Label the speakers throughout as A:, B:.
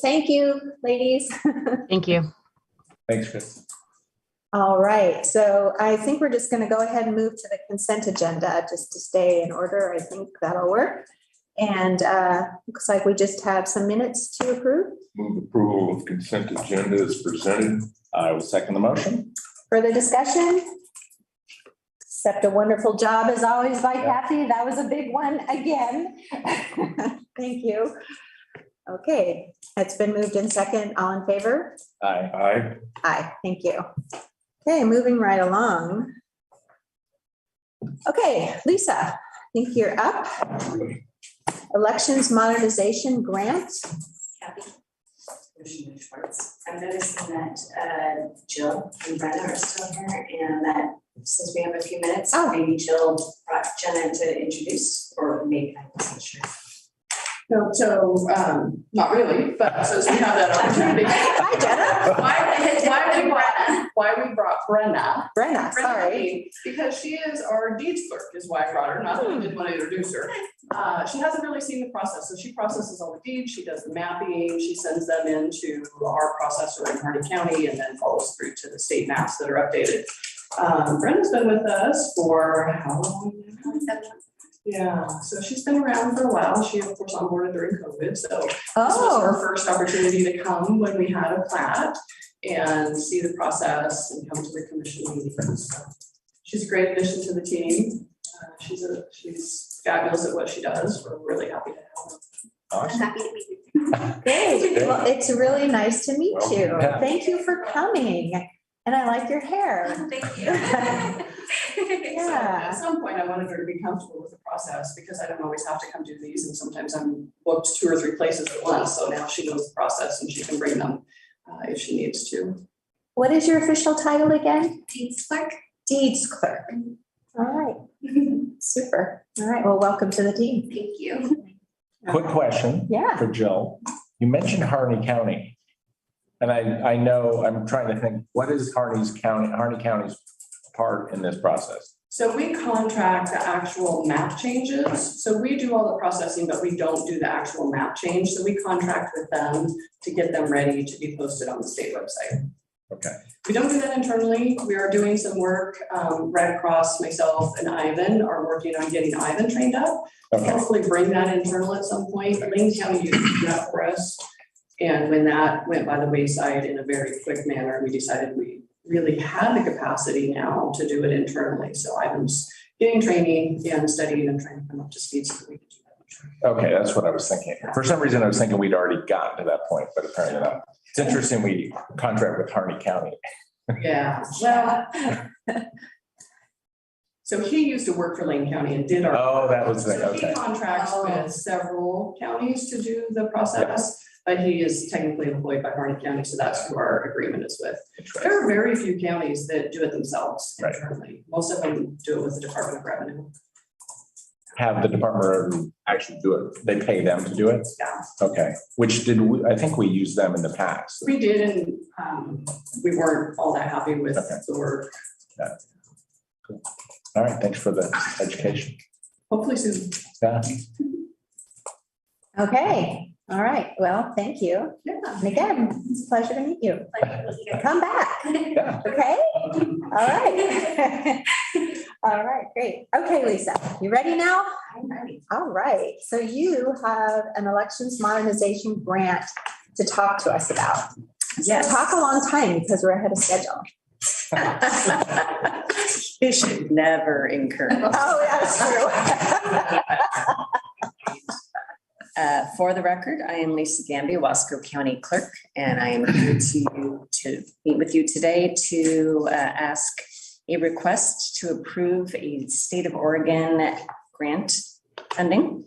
A: Thank you, ladies.
B: Thank you.
C: Thanks, Chris.
A: All right, so I think we're just going to go ahead and move to the consent agenda just to stay in order. I think that'll work. And uh, looks like we just have some minutes to approve.
D: Move approval of consent agenda is presented.
C: I will second the motion.
A: Further discussion? Except a wonderful job as always by
C: Yeah.
A: Kathy. That was a big one again. Thank you. Okay, it's been moved in second. All in favor?
C: Aye.
D: Aye.
A: Aye, thank you. Okay, moving right along. Okay, Lisa, I think you're up. Elections Modernization Grant.
E: Kathy. Commissioner Schwartz. I'm noticing that uh, Jill and Brenna are still here and that since we have a few minutes,
A: Oh.
E: maybe Jill brought Jenna to introduce or maybe I wasn't sure.
F: No, so, um, not really, but so we have that opportunity.
A: Hi, Jenna.
F: Why, why we brought, why we brought Brenna.
A: Brenna,
F: Brenna
A: sorry.
F: Lee, Because she is our deeds clerk is why I brought her, not that I didn't want to introduce her. Uh, she hasn't really seen the process, so she processes all the deeds, she does the mapping, she sends them into our processor in Hardy County and then follows through to the state maps that are updated. Um, Brenda's been with us for how long now? Yeah, so she's been around for a while. She, of course, onboarded during COVID, so this was her
A: Oh,
F: first opportunity to come when we had a plat and see the process and come to the commission meetings. So She's a great addition to the team. Uh, She's a, she's fabulous at what she does. We're really happy to have her.
C: Awesome.
E: happy to meet you.
A: great. Well, it's really nice to meet
D: Welcome.
A: you.
C: Yeah.
A: Thank you for coming. And I like your hair.
E: Thank
F: So
A: Yeah.
F: At some point, I wanted her to be comfortable with the process because I don't always have to come do these and sometimes I'm booked two or three places at once. So now she knows the process and she can bring them uh, if she needs to.
A: What is your official title again?
E: Dean's clerk.
A: Deeds clerk.
F: Mm-hmm.
A: All right, super. All right, well, welcome to the team.
E: Thank you.
C: Quick question
A: Yeah.
C: for Jill. You mentioned Harney County. And I, I know, I'm trying to think, what is Harney's county, Harney County's part in this process?
F: So we contract the actual map changes. So we do all the processing, but we don't do the actual map change. So we contract with them to get them ready to be posted on the state website.
C: Okay.
F: We don't do that internally. We are doing some work. Um, Red Cross, myself and Ivan are working on getting Ivan trained up.
C: Okay,
F: Hopefully bring that internal at some point. Lane County used to do that for us. And when that went by the wayside in a very quick manner, we decided we really had the capacity now to do it internally. So I was getting training and studying and trying to come up to speed so that we could do that.
C: okay, that's what I was thinking. For some reason, I was thinking we'd already gotten to that point, but apparently not. It's interesting we contract with Harney County.
F: Yeah, well. So he used to work for Lane County and did our.
C: Oh, that was the,
F: So he
C: okay.
F: contracts
A: Oh.
F: with several counties to do the process, but he is technically employed by Harnett County, so that's who our agreement is with.
C: Interesting.
F: There are very few counties that do it themselves
C: Right.
F: internally. Most of them do it with the Department of Revenue.
C: Have the Department of actually do it. They pay them to do it?
F: Yeah.
C: Okay, which did, we? I think we used them in the past.
F: We did, and um, we weren't all that happy with
C: Okay.
F: the work.
C: All right, thanks for the education.
F: Hopefully soon.
C: Yeah.
A: Okay, all right, well, thank you.
F: Yeah.
A: And again, it's a pleasure to meet you. Come back,
C: Yeah.
A: okay? All right. All right, great. Okay, Lisa, you ready now?
E: I'm ready.
A: All right, so you have an elections modernization grant to talk to us about.
E: Yes.
A: Talk a long time because we're ahead of schedule.
E: You should never incur.
A: Oh, that's true.
E: Uh, For the record, I am Lisa Gambi, Wasco County Clerk, and I am here to, to meet with you today to uh, ask a request to approve a state of Oregon grant funding.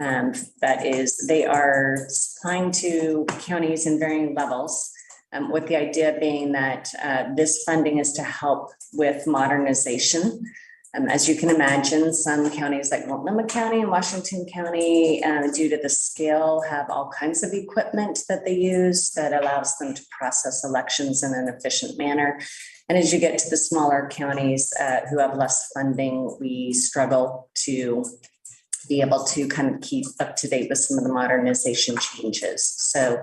E: Um, That is, they are supplying to counties in varying levels, um, with the idea being that uh, this funding is to help with modernization um, as you can imagine, some counties like Multnomah County and Washington County, uh, due to the scale, have all kinds of equipment that they use that allows them to process elections in an efficient manner. And as you get to the smaller counties uh, who have less funding, we struggle to be able to kind of keep up to date with some of the modernization changes. So